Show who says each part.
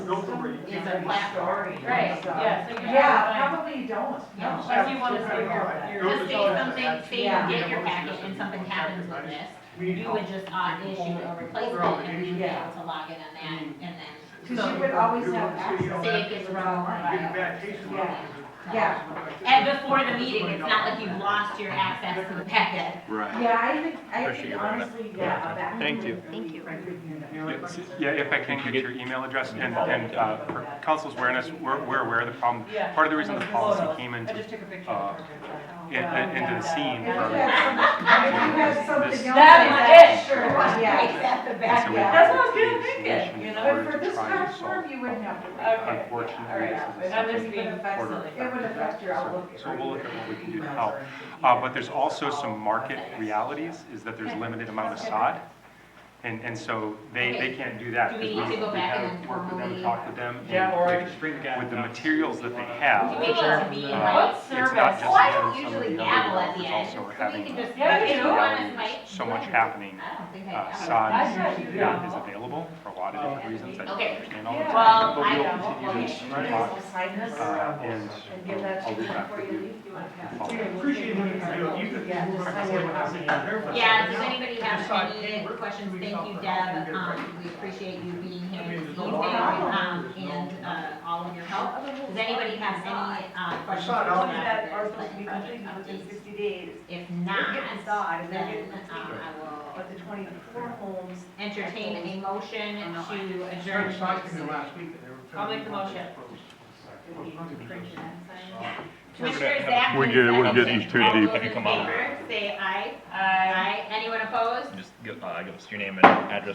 Speaker 1: is a platform.
Speaker 2: Right, yeah, so you're
Speaker 3: Yeah,
Speaker 2: not
Speaker 3: probably you don't,
Speaker 2: Yeah.
Speaker 3: no.
Speaker 2: Or do you wanna stay here?
Speaker 1: Just say something, say
Speaker 3: Yeah.
Speaker 1: you get your package and something happens with this, you would just opt issue a replacement and we would be able to log in on that and then.
Speaker 3: Because you would always have access.
Speaker 1: Say it gets wrong.
Speaker 3: Yeah.
Speaker 1: And before the meeting, it's not like you've lost your access to the packet.
Speaker 4: Right.
Speaker 3: Yeah, I think, I
Speaker 5: Appreciate
Speaker 3: think
Speaker 5: you bringing it.
Speaker 3: honestly, yeah, a back.
Speaker 5: Thank you.
Speaker 3: Thank you.
Speaker 6: Yes, Yeah, if I can get your email address and, and uh, for council's awareness, we're, we're aware of the problem.
Speaker 2: Yeah.
Speaker 6: Part of the reason the policy came
Speaker 2: I
Speaker 6: into,
Speaker 2: just took a picture.
Speaker 6: uh,
Speaker 2: of her.
Speaker 3: Oh,
Speaker 6: in- in- into the scene
Speaker 3: If you
Speaker 6: from,
Speaker 3: had some- if you had something else.
Speaker 2: That is it.
Speaker 3: Sure,
Speaker 1: Right
Speaker 3: yeah.
Speaker 1: at the
Speaker 6: and so
Speaker 1: back.
Speaker 6: we.
Speaker 3: Yeah.
Speaker 2: That's what I was gonna think it,
Speaker 6: solution
Speaker 2: you know?
Speaker 6: in order
Speaker 3: But for
Speaker 6: to
Speaker 3: this
Speaker 6: try and
Speaker 3: platform,
Speaker 6: solve.
Speaker 3: you wouldn't have to.
Speaker 2: Okay. All
Speaker 6: Unfortunately,
Speaker 2: right.
Speaker 6: this is
Speaker 2: And I'm
Speaker 3: It
Speaker 2: just
Speaker 6: something.
Speaker 3: would
Speaker 2: being-
Speaker 3: affect-
Speaker 6: Order.
Speaker 3: It would affect your outlook.
Speaker 6: So we'll look at what we can do to help. Uh, but there's also some market realities, is that there's limited amount of sod. And, and so they, they can't do that.
Speaker 1: Do we
Speaker 6: because
Speaker 1: need to go
Speaker 6: we
Speaker 1: back
Speaker 6: have
Speaker 1: and
Speaker 6: Worked with them,
Speaker 1: formally-
Speaker 6: talked with them. and
Speaker 7: Yeah, or I
Speaker 6: with-
Speaker 7: could bring the guy.
Speaker 6: With the
Speaker 7: down.
Speaker 6: materials that
Speaker 1: Would
Speaker 6: they
Speaker 1: you
Speaker 6: have.
Speaker 1: be able to be
Speaker 6: uh,
Speaker 1: like,
Speaker 2: What
Speaker 6: it's not
Speaker 2: service?
Speaker 6: just
Speaker 1: well, I don't
Speaker 6: them, some of
Speaker 1: usually
Speaker 6: the
Speaker 1: gavel
Speaker 6: other
Speaker 1: at
Speaker 6: ones
Speaker 1: the
Speaker 6: is
Speaker 1: end, so
Speaker 6: also are
Speaker 1: we
Speaker 6: having
Speaker 1: can just.
Speaker 2: Yeah,
Speaker 1: like,
Speaker 2: you
Speaker 1: if
Speaker 2: do.
Speaker 1: want us, like,
Speaker 6: so much
Speaker 1: whatever.
Speaker 6: happening.
Speaker 1: I don't think I
Speaker 6: Uh,
Speaker 1: gavel.
Speaker 2: I
Speaker 6: sod
Speaker 2: tried to
Speaker 6: is
Speaker 2: gavel.
Speaker 6: available for a lot of different reasons. I don't
Speaker 1: Okay.
Speaker 6: understand
Speaker 2: Yeah.
Speaker 6: all of them.
Speaker 1: Well,
Speaker 6: But
Speaker 1: I
Speaker 6: we'll
Speaker 1: don't,
Speaker 6: continue to
Speaker 3: You guys
Speaker 6: talk,
Speaker 3: will sign this
Speaker 6: uh, and
Speaker 3: and give that to
Speaker 6: I'll
Speaker 3: me
Speaker 6: be back
Speaker 3: before
Speaker 6: with
Speaker 3: you
Speaker 6: you.
Speaker 3: leave. You want to have.
Speaker 7: We appreciate what you do. You could-
Speaker 3: Yeah, just sign it when I'm in.
Speaker 1: Yeah, does anybody have
Speaker 7: Decide,
Speaker 1: any
Speaker 7: hey, we're-
Speaker 1: questions?
Speaker 7: we
Speaker 1: Thank
Speaker 7: felt
Speaker 1: you,
Speaker 7: that
Speaker 1: Deb.
Speaker 7: we
Speaker 1: Um, we appreciate you being here
Speaker 7: I mean,
Speaker 1: this
Speaker 7: there's
Speaker 1: evening,
Speaker 7: a lot of-
Speaker 1: um, and, uh, all of your help. Does anybody have any, uh, questions?
Speaker 7: Sod, I'll-
Speaker 1: about
Speaker 3: That are
Speaker 1: this
Speaker 3: supposed to be
Speaker 1: project
Speaker 3: completed within
Speaker 1: updates?
Speaker 3: fifty days.
Speaker 1: If not,
Speaker 3: They're getting sod, and they're
Speaker 1: then,
Speaker 3: getting the
Speaker 1: um, I will
Speaker 3: But the twenty-four homes.
Speaker 1: entertain a motion to adjourn.
Speaker 7: Started talking to
Speaker 1: this-
Speaker 7: him last week that they were
Speaker 2: I'll
Speaker 7: telling
Speaker 2: make the
Speaker 7: me about
Speaker 2: motion.
Speaker 7: this.
Speaker 1: Commissioner Zach.
Speaker 5: We're good- we're getting
Speaker 1: seconded.
Speaker 5: too
Speaker 1: All
Speaker 5: deep.
Speaker 1: those in
Speaker 5: Come on.
Speaker 1: favor, Say aye.
Speaker 2: I.
Speaker 1: Aye. Anyone opposed?
Speaker 5: Just, give- uh, give us your name and address